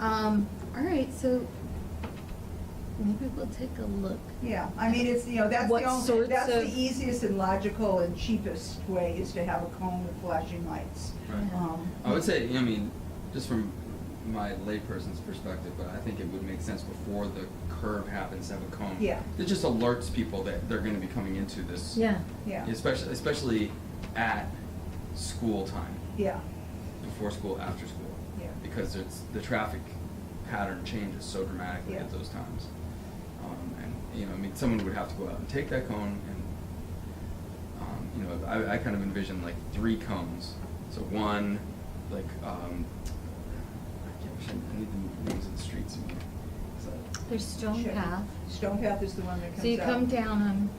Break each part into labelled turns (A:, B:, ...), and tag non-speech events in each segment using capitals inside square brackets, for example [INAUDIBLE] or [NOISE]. A: Um, all right, so maybe we'll take a look.
B: Yeah, I mean, it's, you know, that's the
C: What
B: only,
C: sorts
B: that's the
C: of-
B: easiest and logical and cheapest way is to have a cone with flashing lights.
A: Right.
B: Um,
A: Yeah.
D: I would say, I mean, just from my layperson's perspective, but I think it would make sense before the curve happens to have a cone.
B: Yeah.
D: It just alerts people that they're gonna be coming into this.
A: Yeah.
B: Yeah,
D: Especially, especially at school time,
B: yeah,
D: before school, after school.
B: Yeah.
D: Because it's, the traffic pattern changes so dramatically at
B: Yeah.
D: those times. Um, and, you know, I mean, someone would have to go out and take that cone and, um, you know, I, I kind of envision like three cones. So one, like, um, I can't, I should- I need the names of the streets. in here. Is that-
A: There's Stone
B: Sure.
A: Path.
B: Stone Path is the one that comes out.
A: So you come down on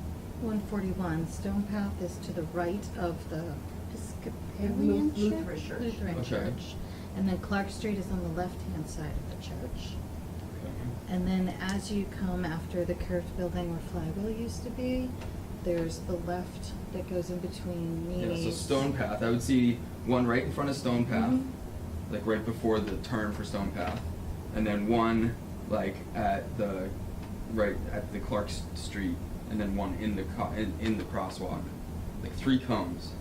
A: one forty-one, Stone Path is to the right of the Episcopalian
B: Lu-
A: church?
B: Lutheran church.
A: Lutheran
D: Okay.
A: church. And then Clark Street is on the left-hand side of the church.
D: Okay.
A: And then as you come after the curved building where Flywheel used to be, there's the left that goes in between
D: Yeah,
A: Nene's.
D: so Stone Path, I would see one right in front of Stone Path,
A: Mhm.
D: like right before the turn for Stone Path, and then one like at the right at the Clark S- Street, and then one in the co- in, in the crosswalk, like three cones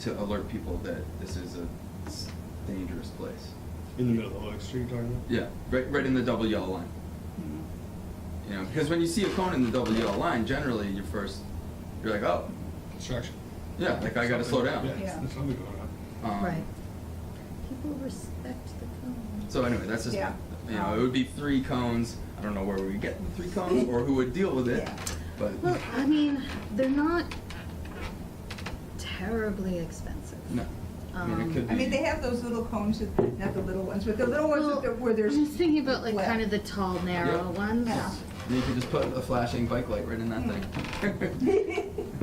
D: to alert people that this is a s- dangerous place.
E: In the middle of Oak Street, you're talking about?
D: Yeah, right right in the double yellow line.
B: Mhm.
D: You know, because when you see a cone in the double yellow line, generally you first you're like, oh,
E: Construction.
D: yeah, like I gotta slow down.
E: Yeah,
B: Yeah.
E: there's something going on.
D: Um,
A: Right. People respect the cone.
D: So anyway, that's just,
B: Yeah.
D: you know, it would be three cones. I don't know where we get the three cones or who would deal with it,
B: Yeah.
D: but
A: Well, I mean, they're not terribly expensive.
D: no. I mean,
A: Um,
D: it could be.
B: I mean, they have those little cones, with- not the little ones, but the little ones with the-
A: Well,
B: where there's.
A: I'm just thinking about like
B: flat.
A: kind of the tall, narrow
D: Yeah.
A: ones.
B: Yeah.
D: You could just put a flashing bike light right in that thing.
B: [LAUGHS]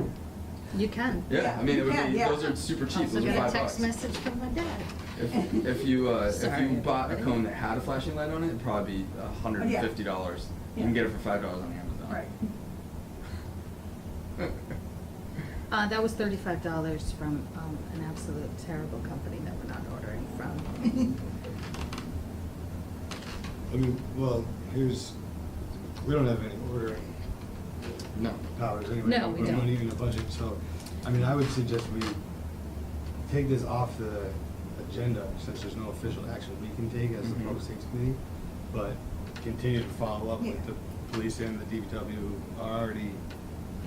A: You can.
D: yeah,
B: Yeah,
D: I mean, it
B: you
D: would
B: can,
D: be.
B: yeah.
D: Those are super cheap.
A: Also
D: those are
A: got a
D: five
A: text
D: bucks.
A: message from my dad.
D: If, if you uh, if
A: Sorry.
D: you bought a cone that had a flashing light on it, it'd probably be hundred and fifty dollars. You can
B: Yeah.
D: get it for five dollars on Amazon.
B: [LAUGHS] Right.
A: Uh, that was thirty-five dollars from, um, an absolute terrible company that we're not ordering from.
B: [LAUGHS]
E: I mean, well, here's, we don't have any ordering
D: [LAUGHS] no.
E: powers anyway.
A: No, we
E: We're
A: don't.
E: not even a budget, so, I mean, I would suggest we take this off the agenda, since there's no official action we can take as the
D: Mhm.
E: public safety committee, but continue to follow up
B: Yeah.
E: with the police and the DPW, who are already,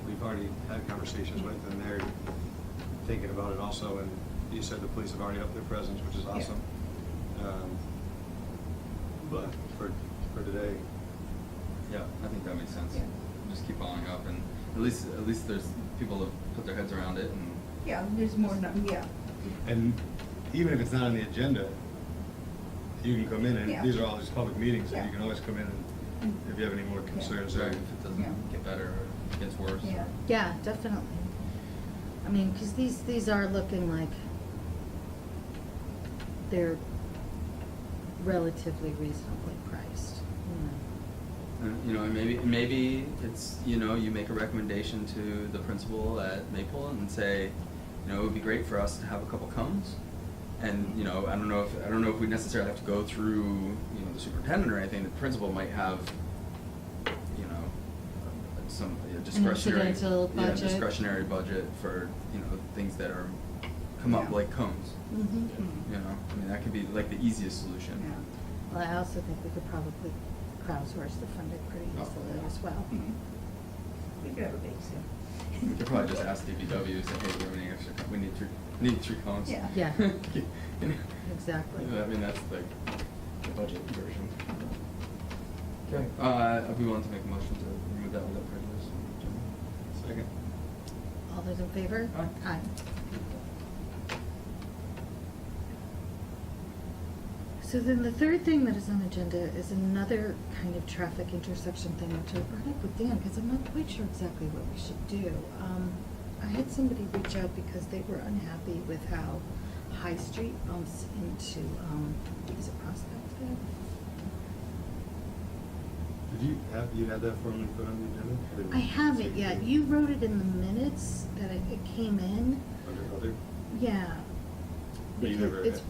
E: we've already had conversations with, and they're thinking about it also, and you said the police have already upped their presence, which is
B: Yeah.
E: awesome. Um, But for, for today,
D: Yeah, I think that makes sense.
B: Yeah.
D: Just keep following up, and at least at least there's people that put their heads around it and.
B: Yeah, there's more, nu- yeah,
E: And even if it's not on the agenda, you can come in,
B: Yeah.
E: and these are all just public meetings, and
B: Yeah.
E: you can always come in and
A: Mm-hmm.
E: if you have any more concerns,
D: Sorry
E: or
D: if it
B: Yeah.
D: doesn't get better or gets worse.
B: yeah.
A: Yeah, definitely. I mean, because these, these are looking like they're relatively reasonably priced, you know.
D: And, Uh, you know, and maybe, maybe it's, you know, you make a recommendation to the principal at Maple and say, you know, it would be great for us to have a couple cones. And, you know, I don't know if, I don't know if we necessarily have to go through, you know, the superintendent or anything, the principal might have, you know, some you know, discretionary.
A: incidental
D: yeah,
A: budget.
D: discretionary budget for, you know, things that are, come up
B: Yeah.
D: like cones,
A: Mm-hmm.
D: you know? I mean, that could be like the easiest solution.
B: Yeah.
A: Well, I also think we could probably crowdsource the funding pretty
D: Oh,
A: easily
D: yeah.
A: as well.
B: Mhm. We could have a bake sale.
D: We could probably just ask DPW, say, hey, we have any extra, co- we need three, need three cones.
B: Yeah.
A: Yeah.
D: [LAUGHS] You know?
A: Exactly.
D: I mean, that's like the budget version. Okay, uh, if we want to make a motion to remove that without prejudice.
E: second.
A: All those in favor?
D: Aye.
A: So then the third thing that is on the agenda is another kind of traffic intersection thing, which I brought up with Dan, because I'm not quite sure exactly what we should do. Um, I had somebody reach out because they were unhappy with how High Street bumps into, um, is it Prospect Ave?
E: Did you have, you had that formally put on the agenda?
A: I haven't yet. You wrote it in the minutes that it it came in.
E: Under other?
A: Yeah.
E: But you
A: Because
E: never-
A: It's